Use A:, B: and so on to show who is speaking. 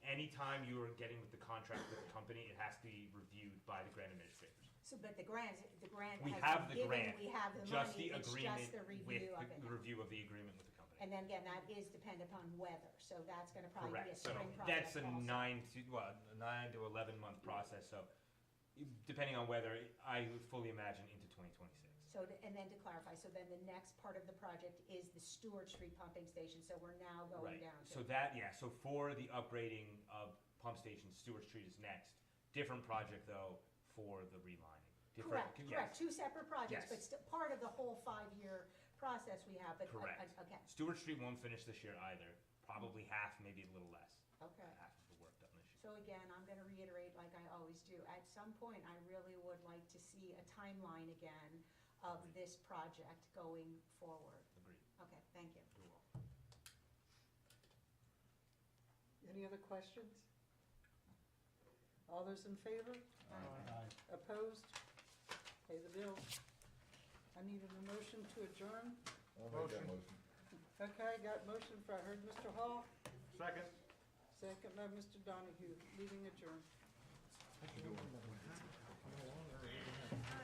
A: anytime you are getting with the contract with the company, it has to be reviewed by the grant administrators.
B: So, but the grant, the grant.
A: We
B: has
A: have the
B: been given,
A: grant,
B: We have the
A: just the
B: money, it's
A: agreement
B: just the
A: with,
B: review of it.
A: the review of the agreement with the company.
B: And then again, that is dependent upon weather, so that's gonna probably be a
A: Correct, so
B: spring project
A: that's a
B: also.
A: nine to, well, a nine to eleven month process, so depending on weather, I would fully imagine into twenty twenty-six.
B: So, to- and then to clarify, so then the next part of the project is the Stewart Street pumping station, so we're now going
A: Right,
B: down
A: so
B: to.
A: that, yeah, so for the upgrading of pump station, Stewart Street is next, different project though for the relining. Different-
B: Correct,
A: yes.
B: correct, two separate projects, but
A: Yes.
B: still part of the whole five-year process we have, but, uh,
A: Correct.
B: uh, okay,
A: Stewart Street won't finish this year either, probably half, maybe a little less,
B: okay.
A: half of the work done this year.
B: So again, I'm gonna reiterate like I always do, at some point, I really would like to see a timeline again of
A: Agreed.
B: this project going forward.
A: Agreed,
B: Okay, thank you.
A: You're welcome.
C: Any other questions? All those in favor?
B: Aye.
C: Opposed? Pay the bill. I need an emotion to adjourn.
D: I'll make that motion.
C: Okay, I got motion for, I heard Mr. Hall,
D: Second.
C: second by Mr. Donahue, meeting adjourned.
D: What you doing?